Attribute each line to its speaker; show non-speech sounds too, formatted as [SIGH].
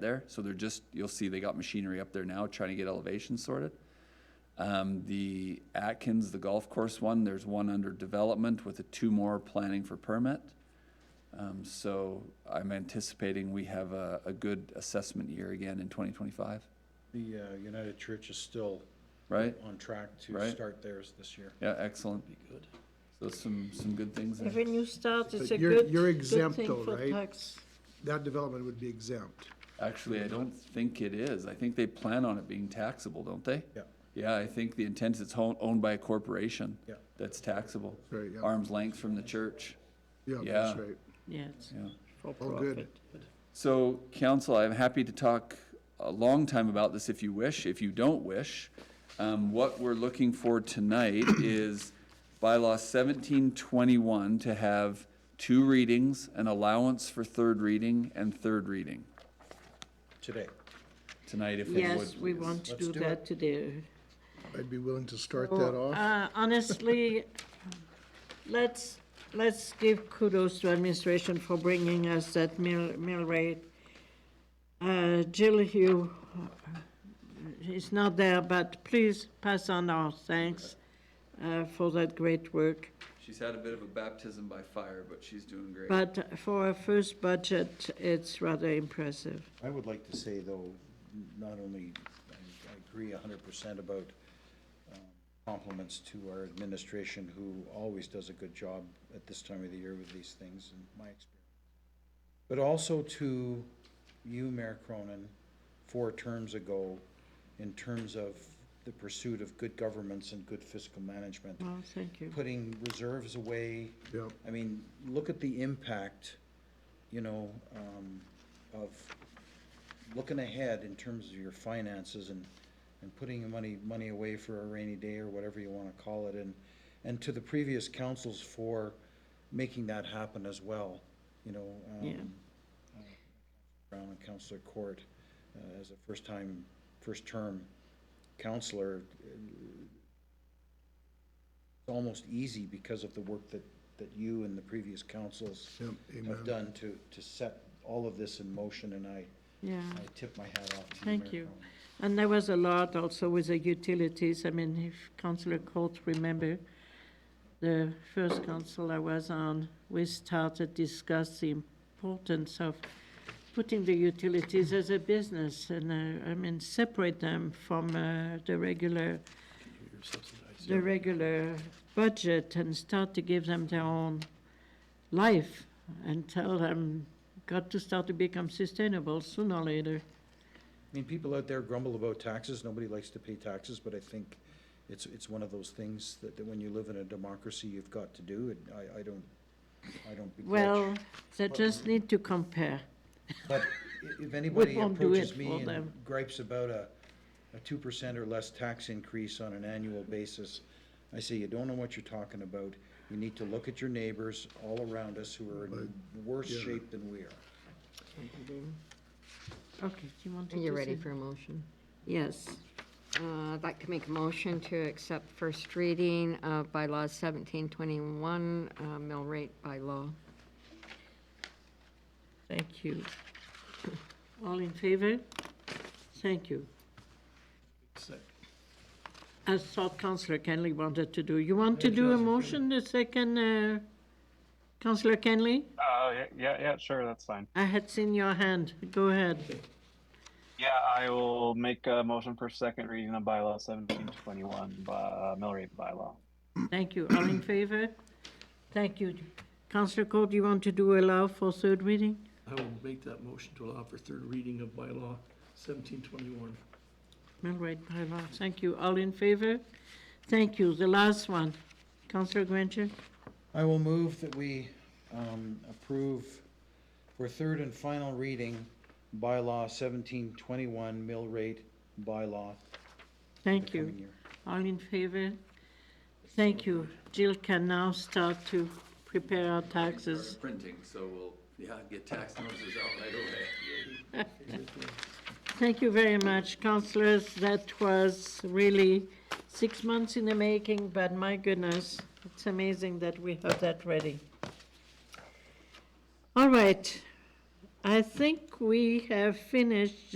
Speaker 1: there. So they're just, you'll see they got machinery up there now trying to get elevation sorted. Um, the Atkins, the golf course one, there's one under development with the two more planning for permit. Um, so I'm anticipating we have a, a good assessment year again in twenty twenty-five,
Speaker 2: The uh, United Church is still
Speaker 1: right?
Speaker 2: on track to
Speaker 1: Right.
Speaker 2: start theirs this year.
Speaker 1: Yeah, excellent. So some, some good things. in-
Speaker 3: If a new start, it's a
Speaker 4: But you're-
Speaker 3: good,
Speaker 4: you're
Speaker 3: good
Speaker 4: exempt
Speaker 3: thing
Speaker 4: though,
Speaker 3: for
Speaker 4: right?
Speaker 3: tax.
Speaker 4: That development would be exempt.
Speaker 1: Actually, I don't think it is. I think they plan on it being taxable, don't they?
Speaker 2: Yeah.
Speaker 1: Yeah, I think the intent is it's hon- owned by a corporation.
Speaker 2: Yeah.
Speaker 1: That's taxable.
Speaker 4: Right, yeah.
Speaker 1: Arm's length from the church.
Speaker 4: Yeah, that's
Speaker 1: Yeah.
Speaker 4: right.
Speaker 3: Yeah, it's
Speaker 1: Yeah.
Speaker 3: for
Speaker 4: All good.
Speaker 3: profit.
Speaker 1: So, council, I'm happy to talk a long time about this if you wish. If you don't wish, um, what we're looking for tonight is bylaw seventeen twenty-one to have two readings, an allowance for third reading and third reading
Speaker 2: Today.
Speaker 1: tonight if we would.
Speaker 3: Yes, we
Speaker 1: please.
Speaker 3: want to
Speaker 2: Let's
Speaker 3: do
Speaker 2: do
Speaker 3: that today.
Speaker 4: I'd be willing to start
Speaker 3: Well,
Speaker 4: that off.
Speaker 3: uh, Honestly, [LAUGHS] let's, let's give kudos to administration for bringing us that mill, mill rate. Uh, Jill Hugh uh, is not there, but please pass on our thanks uh, for that great work.
Speaker 1: She's had a bit of a baptism by fire, but she's doing great.
Speaker 3: But for a first budget, it's rather impressive.
Speaker 2: I would like to say, though, not only, I I agree hundred percent about um, compliments to our administration, who always does a good job at this time of the year with these things, in my experience. But also to you, Mayor Cronin, four terms ago, in terms of the pursuit of good governments and good fiscal management
Speaker 3: Well, Oh, thank you.
Speaker 2: putting reserves away.
Speaker 4: Yep.
Speaker 2: I mean, look at the impact, you know, um, of looking ahead in terms of your finances and, and putting your money, money away for a rainy day or whatever you wanna call it, and, and to the previous councils for making that happen as well, you know. um,
Speaker 3: Yeah.
Speaker 2: Brown and Counselor Court, uh, as a first-time, first-term counselor, uh, it's almost easy because of the work that, that you and the previous councils
Speaker 4: Yep, amen.
Speaker 2: have done to, to set all of this in motion, and I,
Speaker 3: Yeah.
Speaker 2: I tip my hat off to you,
Speaker 3: Thank
Speaker 2: Mayor
Speaker 3: you.
Speaker 2: Cronin.
Speaker 3: And there was a lot also with the utilities. I mean, if Councillor Court remember, the first council I was on, we started discuss the importance of putting the utilities as a business and, uh, I mean, separate them from, uh, the regular, the regular budget and start to give them their own life and tell them, got to start to become sustainable sooner or later.
Speaker 2: I mean, people out there grumble about taxes, nobody likes to pay taxes, but I think it's, it's one of those things that, that when you live in a democracy, you've got to do, and I, I don't, I don't begrudge.
Speaker 3: Well, they just need to compare.
Speaker 2: But i- if anybody
Speaker 3: won't do
Speaker 2: approaches
Speaker 3: it
Speaker 2: me
Speaker 3: for
Speaker 2: and
Speaker 3: them.
Speaker 2: gripes about a, a two percent or less tax increase on an annual basis, I say, you don't know what you're talking about. You need to look at your neighbors all around us who are in worse shape than we are.
Speaker 3: Okay, do you want to?
Speaker 5: Are you
Speaker 3: do
Speaker 5: ready
Speaker 3: some-
Speaker 5: for a motion?
Speaker 3: Yes.
Speaker 5: Uh, I'd like to make a motion to accept first reading of bylaw seventeen twenty-one, uh, mill rate by law.
Speaker 3: Thank you. [LAUGHS] All in favor? Thank you. I thought Councillor Kenley wanted to do, you want to do a motion, the second, uh, Councillor Kenley?
Speaker 6: Uh, yeah, yeah, yeah, sure, that's fine.
Speaker 3: I had seen your hand, go ahead.
Speaker 6: Yeah, I will make a motion for second reading of bylaw seventeen twenty-one, by, uh, mill rate bylaw.
Speaker 3: Thank you, all in favor? Thank you. Councillor Court, you want to do allow for third reading?
Speaker 7: I will make that motion to allow for third reading of bylaw seventeen twenty-one.
Speaker 3: All right, bylaw, thank you. All in favor? Thank you. The last one, Councillor Granger?
Speaker 2: I will move that we um, approve for third and final reading bylaw seventeen twenty-one mill rate bylaw
Speaker 3: Thank
Speaker 2: coming
Speaker 3: you.
Speaker 2: year.
Speaker 3: All in favor? Thank you. Jill can now start to prepare our taxes.
Speaker 1: Printing, so we'll, yeah, get tax notices out right away.
Speaker 3: Thank you very much, councillors. That was really six months in the making, but my goodness, it's amazing that we have that ready. All right. I think we have finished